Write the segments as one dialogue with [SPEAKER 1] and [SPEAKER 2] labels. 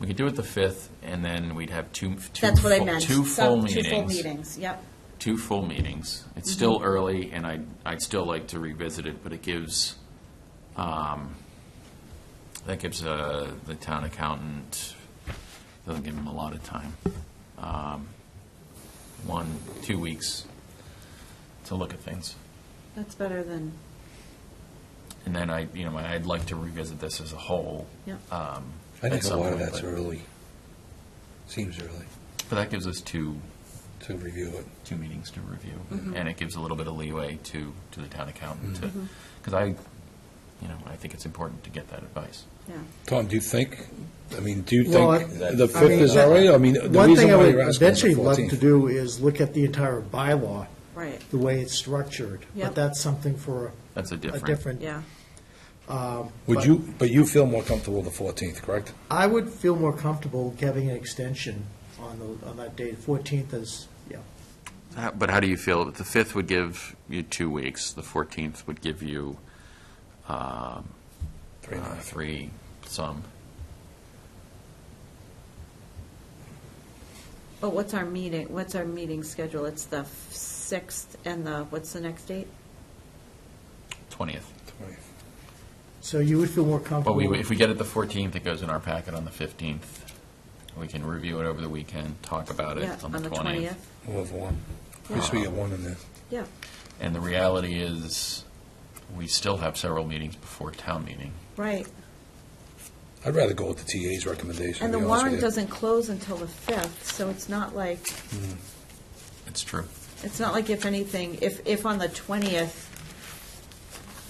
[SPEAKER 1] We could do it the 5th, and then we'd have two, two.
[SPEAKER 2] That's what I
[SPEAKER 1] full-
[SPEAKER 2] meant.
[SPEAKER 1] Two full
[SPEAKER 2] Some-
[SPEAKER 1] meetings.
[SPEAKER 2] Two full Mm-hmm. meetings, yep.
[SPEAKER 1] two full meetings. It's still early, and I'd, I'd still like to revisit it, but it gives, um, that gives uh, the town accountant, doesn't give him a lot of time. Um, One, two weeks to look at things.
[SPEAKER 2] That's better than,
[SPEAKER 1] And then I, you know, I'd like to revisit this as a whole.
[SPEAKER 2] yep.
[SPEAKER 1] um,
[SPEAKER 3] I
[SPEAKER 1] at
[SPEAKER 3] think a
[SPEAKER 1] some
[SPEAKER 3] lot of
[SPEAKER 1] point,
[SPEAKER 3] that's
[SPEAKER 1] but-
[SPEAKER 3] early. Seems early
[SPEAKER 1] But that gives us two,
[SPEAKER 3] to review it.
[SPEAKER 1] two meetings to review, and it gives a little bit of leeway to, to the town accountant to, because I, you know, I think it's important to get that advice.
[SPEAKER 2] yeah.
[SPEAKER 3] Tom, do you think, I mean, do you
[SPEAKER 4] Well,
[SPEAKER 3] think
[SPEAKER 4] I-
[SPEAKER 3] the
[SPEAKER 4] I
[SPEAKER 3] 5th
[SPEAKER 4] mean,
[SPEAKER 3] is all right? I mean, the
[SPEAKER 4] One
[SPEAKER 3] reason
[SPEAKER 4] thing I
[SPEAKER 3] why
[SPEAKER 4] would
[SPEAKER 3] you're asking is the
[SPEAKER 4] eventually love to
[SPEAKER 3] 14th.
[SPEAKER 4] do is look at the entire bylaw,
[SPEAKER 2] Right,
[SPEAKER 4] the way it's structured.
[SPEAKER 2] Yep.
[SPEAKER 4] But that's something for
[SPEAKER 1] That's a
[SPEAKER 4] a
[SPEAKER 1] different.
[SPEAKER 4] different.
[SPEAKER 2] yeah.
[SPEAKER 3] Would you, but you feel more comfortable the 14th, correct?
[SPEAKER 4] I would feel more comfortable giving an extension on the, on that date. Fourteenth is, yeah.
[SPEAKER 1] How- But how do you feel? The 5th would give you two weeks, the 14th would give you um,
[SPEAKER 3] Three and a
[SPEAKER 1] uh,
[SPEAKER 3] half.
[SPEAKER 1] three, some.
[SPEAKER 2] But what's our meeting, what's our meeting schedule? It's the 6th and the, what's the next date?
[SPEAKER 1] 20th.
[SPEAKER 4] So you would feel more comfortable.
[SPEAKER 1] But we, if we get it the 14th, it goes in our packet on the 15th. We can review it over the weekend, talk about
[SPEAKER 2] Yeah,
[SPEAKER 1] it on the 20th.
[SPEAKER 3] We'll have one. At least we get one in there.
[SPEAKER 2] Yeah,
[SPEAKER 1] And the reality is, we still have several meetings before town meeting.
[SPEAKER 2] right.
[SPEAKER 3] I'd rather go with the TA's recommendation,
[SPEAKER 2] And
[SPEAKER 3] to
[SPEAKER 2] the
[SPEAKER 3] be honest
[SPEAKER 2] warrant
[SPEAKER 3] with you.
[SPEAKER 2] doesn't close until the 5th, so it's not like,
[SPEAKER 1] It's true.
[SPEAKER 2] it's not like if anything, if, if on the 20th,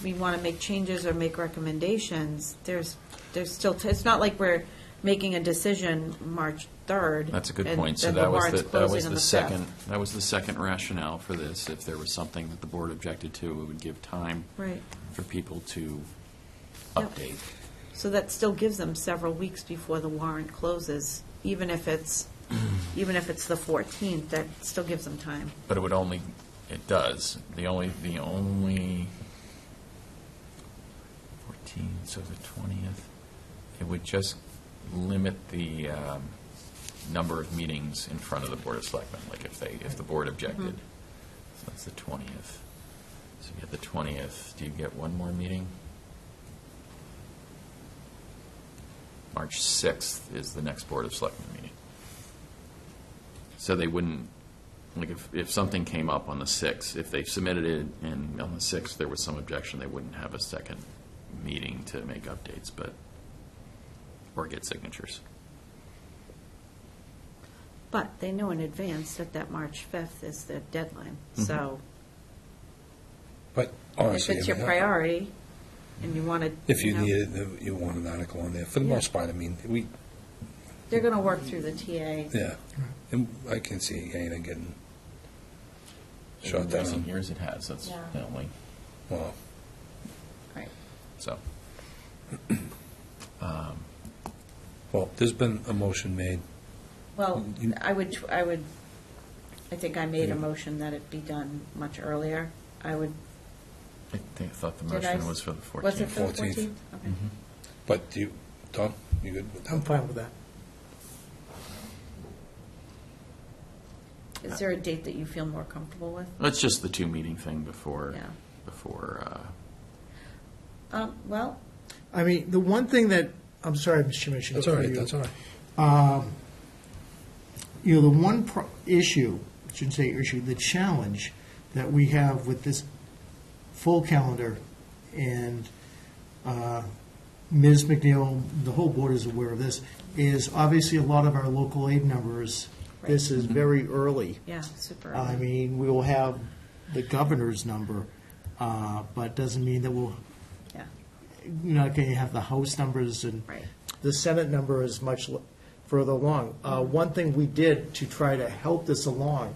[SPEAKER 2] we want to make changes or make recommendations, there's, there's still, t- it's not like we're making a decision March 3rd.
[SPEAKER 1] That's a good
[SPEAKER 2] and
[SPEAKER 1] point. So
[SPEAKER 2] then
[SPEAKER 1] that was
[SPEAKER 2] warrant's
[SPEAKER 1] the, that
[SPEAKER 2] closing
[SPEAKER 1] was
[SPEAKER 2] on
[SPEAKER 1] the
[SPEAKER 2] 5th.
[SPEAKER 1] second, that was the second rationale for this. If there was something that the board objected to, it would give time
[SPEAKER 2] Right.
[SPEAKER 1] for people to
[SPEAKER 2] Yep.
[SPEAKER 1] update.
[SPEAKER 2] So that still gives them several weeks before the warrant closes, even if it's, even if it's the 14th, that still gives them time.
[SPEAKER 1] But it would only, it does. The only, the only, 14, so the 20th, it would just limit the um, number of meetings in front of the Board of Selectmen, like if they, if the board objected. So that's the 20th. So you get the 20th, do you get one more meeting? March 6th is the next Board of Selectmen meeting. So they wouldn't, like, if, if something came up on the 6th, if they submitted it and on the 6th there was some objection, they wouldn't have a second meeting to make updates, but, or get signatures.
[SPEAKER 2] But they know in advance that that March 5th is their deadline.
[SPEAKER 1] Mm-hmm.
[SPEAKER 2] So
[SPEAKER 3] But
[SPEAKER 2] if
[SPEAKER 3] honestly.
[SPEAKER 2] it's
[SPEAKER 3] Oh,
[SPEAKER 2] your
[SPEAKER 3] I mean, I-
[SPEAKER 2] priority and you want to.
[SPEAKER 3] If you
[SPEAKER 2] know,
[SPEAKER 3] need it, then you want an article on there. For the
[SPEAKER 2] Yeah.
[SPEAKER 3] most part, I mean, we,
[SPEAKER 2] They're going to work through the TA.
[SPEAKER 3] yeah. And I can see Dana getting shot
[SPEAKER 1] In recent
[SPEAKER 3] down.
[SPEAKER 1] years it has, that's
[SPEAKER 2] Yeah.
[SPEAKER 1] the only,
[SPEAKER 3] Well,
[SPEAKER 2] Right.
[SPEAKER 1] so.
[SPEAKER 3] well, there's been a motion made.
[SPEAKER 2] Well,
[SPEAKER 3] You-
[SPEAKER 2] I would, I would, I think I made
[SPEAKER 3] Yeah.
[SPEAKER 2] a motion that it be done much earlier. I would,
[SPEAKER 1] I think, I thought the
[SPEAKER 2] Did I
[SPEAKER 1] motion
[SPEAKER 2] s-
[SPEAKER 1] was for the 14th.
[SPEAKER 2] was it for the
[SPEAKER 3] 14th.
[SPEAKER 2] 14th? Okay.
[SPEAKER 3] Mm-hmm. But do you, Tom, you good with
[SPEAKER 4] I'm
[SPEAKER 3] that?
[SPEAKER 4] fine with that.
[SPEAKER 2] Is there a date that you feel more comfortable with?
[SPEAKER 1] That's just the two meeting thing before,
[SPEAKER 2] Yeah.
[SPEAKER 1] before, uh,
[SPEAKER 2] Um, Well,
[SPEAKER 4] I mean, the one thing that, I'm sorry, Mr. Chairman, I should go
[SPEAKER 3] That's all
[SPEAKER 4] through
[SPEAKER 3] right,
[SPEAKER 4] you.
[SPEAKER 3] that's all right.
[SPEAKER 4] you know, the one pro- issue, I shouldn't say issue, the challenge that we have with this full calendar, and uh, Ms. McNeil, the whole board is aware of this, is obviously a lot of our local aid numbers, this is very early.
[SPEAKER 2] yeah, super.
[SPEAKER 4] Uh, I mean, we will have the governor's number, uh, but doesn't mean that we'll,
[SPEAKER 2] Yeah,
[SPEAKER 4] you're not going to have the House numbers and
[SPEAKER 2] right.
[SPEAKER 4] the Senate number is much l- further along. Uh, One thing we did to try to help this along,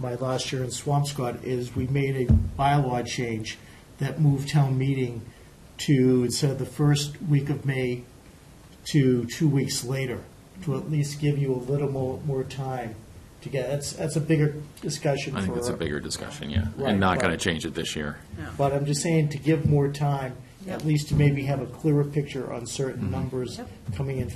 [SPEAKER 4] my last year in Swampscott, is we made a bylaw change that moved town meeting to, instead of the first week of May, to two weeks later, to at least give you a little more, more time to get, that's, that's a bigger discussion for.
[SPEAKER 1] I think that's a bigger discussion, yeah.
[SPEAKER 4] Right,
[SPEAKER 1] And not going to
[SPEAKER 4] right.
[SPEAKER 1] change it this year.
[SPEAKER 4] But I'm just saying to give more time,
[SPEAKER 2] Yep.
[SPEAKER 4] at least to maybe have a clearer picture on certain numbers
[SPEAKER 2] Yep.
[SPEAKER 4] coming in